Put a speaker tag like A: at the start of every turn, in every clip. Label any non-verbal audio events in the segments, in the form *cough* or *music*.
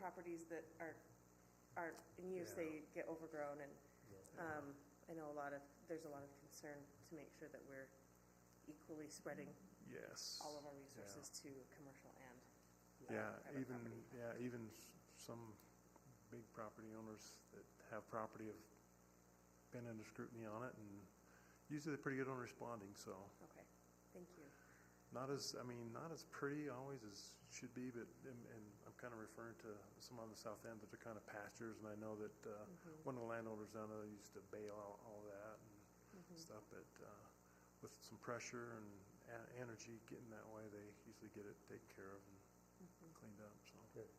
A: properties that are, are in use, they get overgrown and, um, I know a lot of, there's a lot of concern to make sure that we're equally spreading
B: Yes.
A: all of our resources to commercial and uh,
B: Yeah,
A: private
B: even,
A: property.
B: yeah, even s- some big property owners that have property have been under scrutiny on it, and usually they're pretty good on responding, so.
A: Okay, thank you.
B: Not as, I mean, not as pretty always as should be, but, and, and I'm kind of referring to some on the south end that are kind of pastures, and I know that, uh,
A: Mm-hmm,
B: one of the landowners down there used to bail out all that
A: Hmm. mm-hmm,
B: and stuff, but, uh, with some pressure and e- energy getting that way, they usually get it taken care of
A: mm-hmm,
B: and cleaned up, so.
C: Good.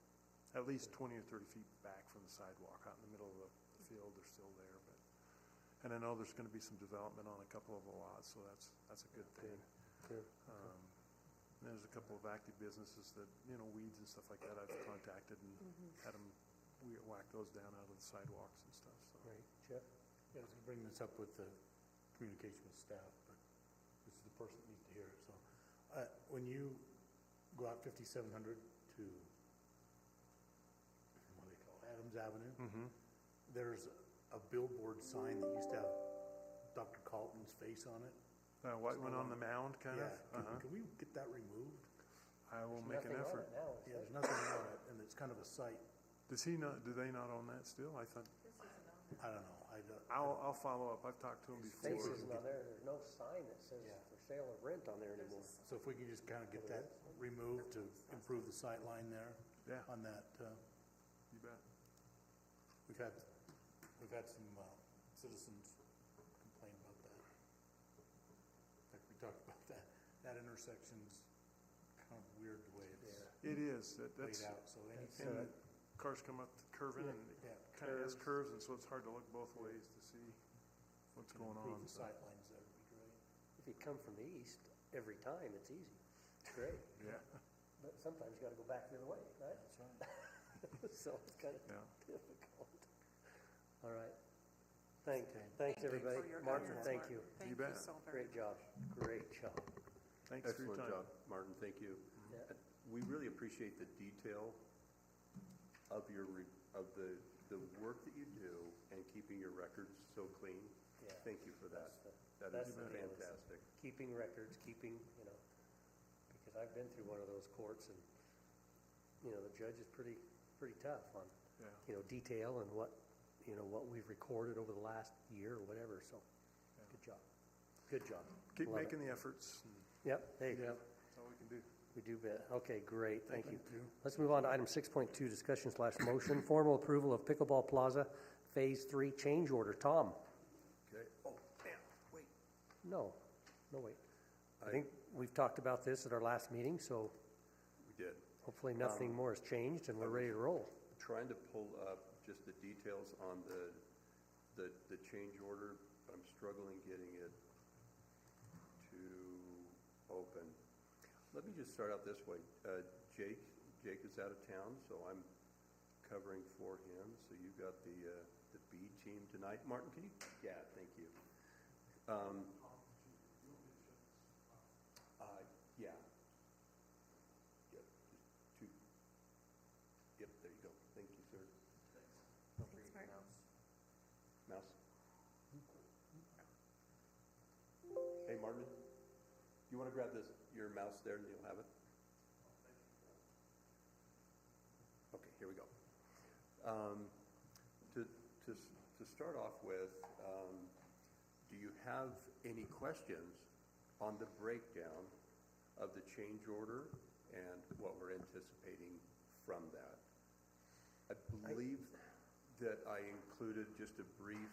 B: At least twenty or thirty feet back from the sidewalk, out in the middle of the the field, they're still there, but, and I know there's gonna be some development on a couple of the lots, so that's, that's a good thing.
C: Good.
B: Um, There's a couple of active businesses that, you know, weeds and stuff like that I've contacted and
A: mm-hmm.
B: had them whack those down out of the sidewalks and stuff, so.
C: Right, Jeff? Yeah, I was gonna bring this up with the communication with staff, but this is the person that needs to hear it, so. Uh, when you go out fifty-seven hundred to, what do they call it, Adams Avenue?
B: Mm-hmm.
C: There's a billboard sign that used to have Dr. Carlton's face on it.
B: Uh, white one on the mound, kind of?
C: Yeah, can-
B: Uh-huh.
C: can we get that removed?
B: I will make an effort.
C: Yeah, there's nothing on it, and it's kind of a sight,
B: Does he not, do they not own that still? I thought,
C: I don't know, I don't.
B: I'll, I'll follow up. I've talked to him before.
D: Space is not there, there's no sign that says
C: Yeah.
D: for sale or rent on there anymore.
C: So if we can just kind of get that removed to improve the sight line there?
B: Yeah.
C: On that, uh,
B: You bet.
C: we've had, we've had some uh, citizens complain about that. In fact, we talked about that, that intersection's kind of weird the way it's
B: It is, that, that's, uh,
C: laid out, so anything,
B: and cars come up the curve in and
C: yeah,
B: kind of has curves, and so it's hard to look both ways to see what's
C: to
B: going
C: improve
B: on.
C: the
B: so.
C: sight lines, that would be great.
D: If you come from the east, every time, it's easy. It's great,
B: Yeah,
D: but sometimes you gotta go back the other way, right? *laughs*
C: That's right.
D: So it's kinda
B: yeah.
D: difficult. All right. Thanks,
C: Okay.
D: thanks, everybody.
A: For your
D: Martha,
A: efforts,
D: thank
A: Mark.
D: you.
A: Thank you
B: bet.
A: so very
D: Great
A: much.
D: job, great job.
B: Thanks for your
E: Excellent
B: time.
E: job, Martin, thank you.
D: Yeah.
E: And We really appreciate the detail of your, re- of the, the work that you do and keeping your records so clean.
D: Yeah.
E: Thank you for that.
D: That's the-
E: That
D: that's
E: is
D: the deal, is-
E: fantastic.
D: Keeping records, keeping, you know, because I've been through one of those courts and, you know, the judge is pretty, pretty tough on
B: Yeah.
D: you know, detail and what, you know, what we've recorded over the last year or whatever, so, good job. Good job.
B: Keep
D: Love it.
B: making the efforts. and
D: Yep, there you go.
B: That's all we can do.
D: We do bet. Okay, great, thank you.
C: you.
D: Let's move on to item six point two, discussion slash motion, formal approval of Pickleball Plaza Phase Three Change Order. Tom?
E: Okay, oh, man, wait.
D: No, no, wait. I
E: I-
D: think we've talked about this at our last meeting, so
E: We did.
D: hopefully nothing more has changed and we're ready to roll.
E: Trying to pull up just the details on the, the, the change order, but I'm struggling getting it to open. Let me just start out this way. Uh, Jake, Jake is out of town, so I'm covering for him. So you got the, uh, the B team tonight. Martin, can you? Yeah, thank you. Um, uh, yeah. Yep, just two. Yep, there you go. Thank you, sir.
A: Thanks, Mark.
E: Mouse. Hey, Martin, you want to grab this, your mouse there, and you'll have it? Okay, here we go. Um, To, to, s- to start off with, um, do you have any questions on the breakdown of the change order and what we're anticipating from that? I believe that I included just a brief,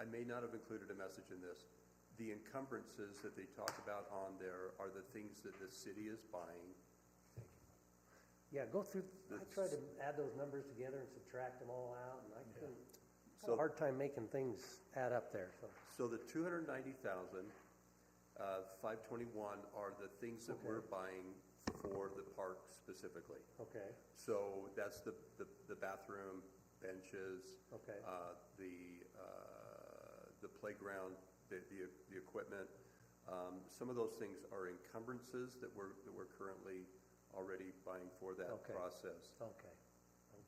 E: I may not have included a message in this. The encumbrances that they talk about on there are the things that the city is buying.
D: Yeah, go through, I
E: That's-
D: tried to add those numbers together and subtract them all out, and I couldn't, had a
E: So-
D: hard time making things add up there, so.
E: So the two hundred ninety thousand, uh, five twenty-one are the things that we're buying for the park specifically.
D: Okay,
E: So that's the, the, the bathroom, benches.
D: Okay.
E: Uh, the, uh, the playground, the, the, the equipment. Um, some of those things are encumbrances that we're, that we're currently already buying for that
D: Okay.
E: process.
D: okay,